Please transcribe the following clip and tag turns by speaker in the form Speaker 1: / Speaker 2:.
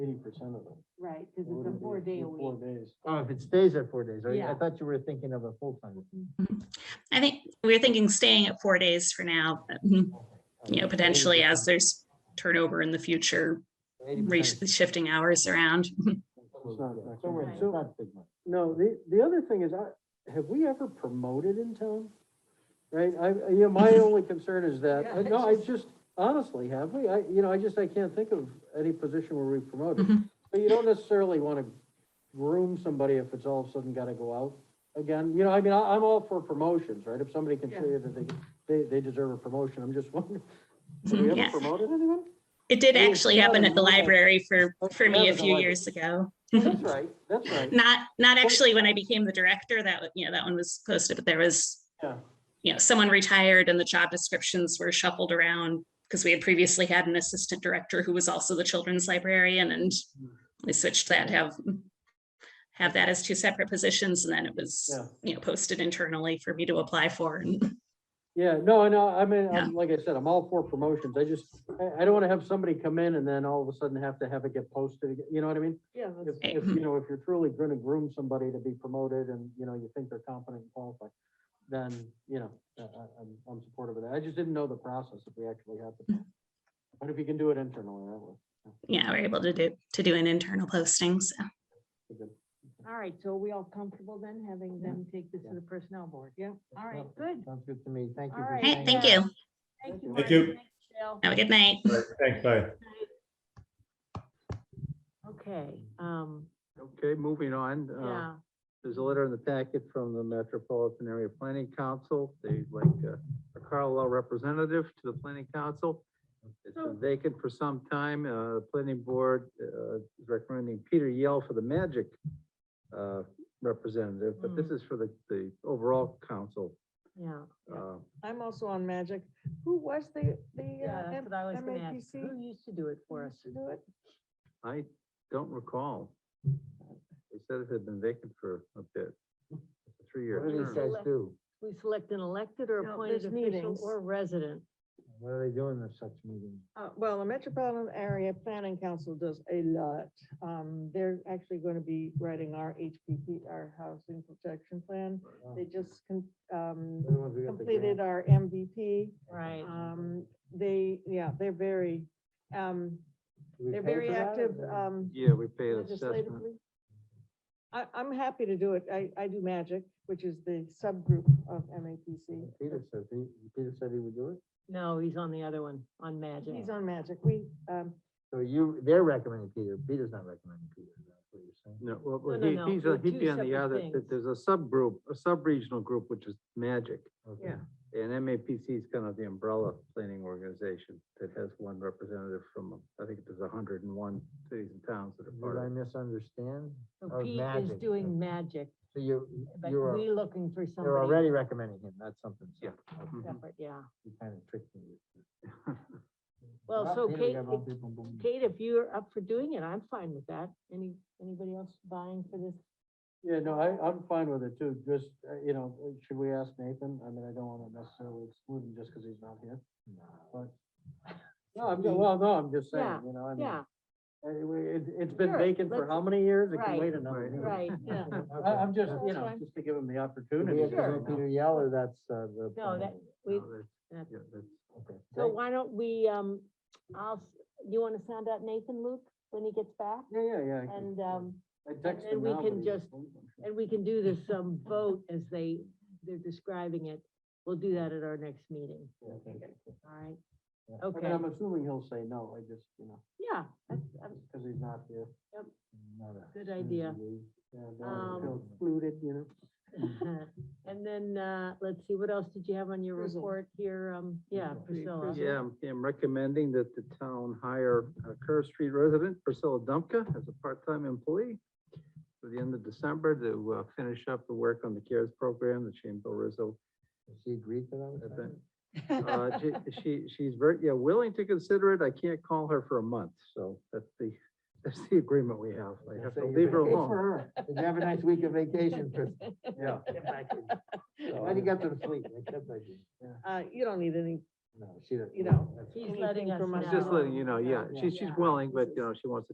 Speaker 1: eighty percent of them.
Speaker 2: right, because it's a four day a
Speaker 1: Four
Speaker 2: week.
Speaker 1: days.
Speaker 3: Oh, if it stays at four days, right? I
Speaker 2: Yeah.
Speaker 3: thought you were thinking of a full time.
Speaker 4: I think we were thinking staying at four days for now, but, you
Speaker 1: Mm-hmm.
Speaker 4: know, potentially as there's turnover in the future, re- shifting hours around.
Speaker 1: It's not- it's
Speaker 3: Somewhere,
Speaker 1: not-
Speaker 3: it's
Speaker 1: so-
Speaker 3: not big money.
Speaker 1: No, the, the other thing is, I, have we ever promoted in town? Right, I, you know, my only concern is that,
Speaker 2: Yeah,
Speaker 1: I- no, I just, honestly, have we, I, you know, I just, I can't think of any position where we promoted.
Speaker 2: Mm-hmm.
Speaker 4: Mhm.
Speaker 1: But you don't necessarily wanna groom somebody if it's all of a sudden gotta go out again, you know, I mean, I, I'm all for promotions, right? If somebody can show you that they, they, they deserve a promotion, I'm just wondering, have we
Speaker 4: Yeah.
Speaker 1: ever promoted anyone?
Speaker 4: It did
Speaker 1: Yeah,
Speaker 4: actually happen at the
Speaker 1: yeah.
Speaker 4: library for,
Speaker 1: Okay,
Speaker 4: for
Speaker 1: yeah,
Speaker 4: me a
Speaker 1: but
Speaker 4: few
Speaker 1: like-
Speaker 4: years ago.
Speaker 1: That's right, that's right,
Speaker 4: Not, not actually when I became the director, that, wa- you know, that one was posted, but there was,
Speaker 1: yeah.
Speaker 4: you know, someone retired and the job descriptions were shuffled around because we had previously had an assistant director who was also the children's librarian and we switched that, to have, have that as two separate positions and then it was,
Speaker 1: Yeah.
Speaker 4: you know, posted internally for me to apply for. and-
Speaker 1: Yeah, no, I know, I mean,
Speaker 4: Yeah.
Speaker 1: I'm, like I said, I'm all for promotions, I just, I, I don't wanna have somebody come in and then all of a sudden have to have it get posted, again. you know what I mean?
Speaker 2: Yeah,
Speaker 1: If,
Speaker 2: that's-
Speaker 1: if,
Speaker 4: Mm-hmm.
Speaker 1: you know, if you're truly gonna groom somebody to be promoted and, you know, you think they're competent and qualified, then, you know, I, I, I'm, I'm supportive of that, I just didn't know the process if we actually had
Speaker 4: Mm.
Speaker 1: to. But if you can do it internally, that would
Speaker 4: Yeah, we're able to do, to do an internal posting, so.
Speaker 1: be good.
Speaker 2: all right, so are we all comfortable then, having
Speaker 3: Yeah.
Speaker 2: them take this
Speaker 1: Yeah.
Speaker 2: to the personnel board? Yeah, all right,
Speaker 3: Yep.
Speaker 2: good.
Speaker 3: Sounds good to me. Thank you.
Speaker 2: All
Speaker 3: for
Speaker 2: right,
Speaker 4: Hey,
Speaker 3: saying
Speaker 4: thank
Speaker 3: that.
Speaker 4: you.
Speaker 2: Thank you.
Speaker 5: Thank
Speaker 2: Marty.
Speaker 5: you.
Speaker 2: Thanks, Michelle.
Speaker 4: Have a good night.
Speaker 5: Right, Thanks, bye.
Speaker 2: Okay, um,
Speaker 3: Okay, moving on. uh,
Speaker 2: yeah,
Speaker 3: There's a letter in the packet from the Metropolitan Area Planning Council. They'd like uh, a Carlisle representative to the planning council. It's
Speaker 2: Oh.
Speaker 3: been vacant for some time. Uh, the planning board, uh, is recommending Peter Yell for the magic, uh, representative, but
Speaker 2: Hmm.
Speaker 3: this is for the, the overall council.
Speaker 2: yeah.
Speaker 3: Uh,
Speaker 6: I'm also on Magic. Who was the, the
Speaker 2: Yeah,
Speaker 6: uh,
Speaker 2: that's
Speaker 6: M-
Speaker 2: what I was gonna ask.
Speaker 6: MAPC?
Speaker 2: Who used to do it for us?
Speaker 6: used to do it?
Speaker 3: I don't recall. They said it had been vacant for a bit, a three-year
Speaker 2: What do these
Speaker 3: term.
Speaker 2: guys
Speaker 3: do?
Speaker 2: We select an elected or
Speaker 6: No, appointed there's official meetings. or
Speaker 2: resident.
Speaker 3: What are they doing in such meetings?
Speaker 6: Uh, well, the Metropolitan Area Planning Council does a lot. Um, they're actually going to be writing our HPP, our Housing Protection Plan. They just, con- um, completed our MVP.
Speaker 2: Right.
Speaker 6: Um, they, yeah, they're very, um, they're very active, um,
Speaker 3: Yeah, we paid assessment.
Speaker 6: legislatively? I, I'm happy to do it. I, I do MAGIC, which is the subgroup of MAPC.
Speaker 3: Peter said, he, Peter said he would do it?
Speaker 2: No, he's on the other one, on Magic.
Speaker 6: He's on MAGIC. We, um,
Speaker 3: So you, they're recommending Peter, Peter's not recommending Peter, is that what you're saying? No, well, well,
Speaker 2: No, no,
Speaker 3: he-
Speaker 2: no,
Speaker 3: he's,
Speaker 2: they're
Speaker 3: a- he'd
Speaker 2: two
Speaker 3: be on the
Speaker 2: separate
Speaker 3: other,
Speaker 2: things.
Speaker 3: that there's a subgroup, a sub-regional group, which is Magic.
Speaker 6: Yeah.
Speaker 3: And MAPC is kind of the umbrella planning organization that has one representative from, I think there's hundred and one cities and towns that are part of it.
Speaker 7: misunderstand?
Speaker 2: So
Speaker 7: Oh,
Speaker 2: Pete is
Speaker 7: Magic,
Speaker 2: doing magic,
Speaker 7: So you're,
Speaker 2: but
Speaker 7: you're,
Speaker 2: we
Speaker 7: al-
Speaker 2: looking for
Speaker 7: you're
Speaker 2: somebody
Speaker 7: already recommending him, that's something.
Speaker 3: Yeah. Mhm.
Speaker 2: separate, yeah.
Speaker 7: You kind of tricked me.
Speaker 2: Well, so Kate, if-
Speaker 7: Kate.
Speaker 2: Kate, if you're up for doing it, I'm fine with that. Any, anybody else vying for this?
Speaker 1: Yeah, no, I, I'm fine with it too, just, uh, you know, uh, should we ask Nathan? I mean, I don't wanna necessarily exclude him just cause he's not here, but. No, I'm, ju- well, no, I'm just saying,
Speaker 2: Yeah,
Speaker 1: you know, I mean,
Speaker 2: Yeah,
Speaker 1: anyway, it, it's been
Speaker 2: Sure,
Speaker 1: vacant for
Speaker 2: let's-
Speaker 1: how many years? It can
Speaker 2: right,
Speaker 1: wait another
Speaker 3: right.
Speaker 1: year.
Speaker 2: right, yeah.
Speaker 1: I, I'm just,
Speaker 6: That's
Speaker 1: you know,
Speaker 6: fine.
Speaker 1: just to give him the
Speaker 7: Do we
Speaker 1: opportunity.
Speaker 7: have to
Speaker 1: you know.
Speaker 7: go Peter Yell or that's uh, the?
Speaker 2: No, that, we,
Speaker 3: No, that's-
Speaker 2: that's-
Speaker 3: yeah, that's-
Speaker 7: Okay.
Speaker 2: so why don't we, um, I'll, s- you want to sound out Nathan Luke when he gets back?
Speaker 1: Yeah, yeah, yeah. I can-
Speaker 2: And, um,
Speaker 1: I text
Speaker 2: then
Speaker 1: him
Speaker 2: we
Speaker 1: now, but
Speaker 2: can
Speaker 1: he's
Speaker 2: just-
Speaker 1: asleep, I'm sure.
Speaker 2: and we can do this, um, vote as they, they're describing it. We'll do that at our next meeting,
Speaker 1: Yeah, I think-
Speaker 2: all right?
Speaker 7: Yeah.
Speaker 1: I mean,
Speaker 2: Okay,
Speaker 1: I'm assuming he'll say no, I just, you know,
Speaker 2: yeah, that's, that's
Speaker 1: just cause he's not here.
Speaker 7: Not a-
Speaker 2: a good idea.
Speaker 1: Yeah, I don't wanna
Speaker 2: Um,
Speaker 1: feel excluded, you know? Mm-hmm.
Speaker 2: And then, uh, let's see, what else did you have on your
Speaker 6: Priscilla.
Speaker 2: report here? Um, yeah,
Speaker 6: Priscilla.
Speaker 2: Priscilla.
Speaker 3: Yeah, I'm- I'm recommending that the town hire a Kerr Street resident, Priscilla Dumpka, as a part-time employee for the end of December to uh, finish up the work on the CARES program that she and Bill Rizzo
Speaker 7: Does She agreed to that?
Speaker 3: have
Speaker 7: with
Speaker 3: been.
Speaker 7: that?
Speaker 3: uh, she- She, she's very, yeah, willing to consider it. I can't call her for a month, so that's the, that's the agreement we have. I have to leave her
Speaker 7: Good
Speaker 3: alone.
Speaker 7: for her. Did you Have a nice week of vacation, Chris.
Speaker 1: Yeah.
Speaker 7: Why you got some sleep? I kept thinking,
Speaker 6: uh, you don't need any,
Speaker 7: No, she doesn't.
Speaker 6: You know,
Speaker 7: That's-
Speaker 2: He's letting
Speaker 6: Anything
Speaker 2: us
Speaker 6: from
Speaker 2: know.
Speaker 6: us.
Speaker 3: Just letting you know, yeah,
Speaker 1: Yeah.
Speaker 3: she's, she's
Speaker 2: Yeah.
Speaker 3: willing, but, you know, she wants to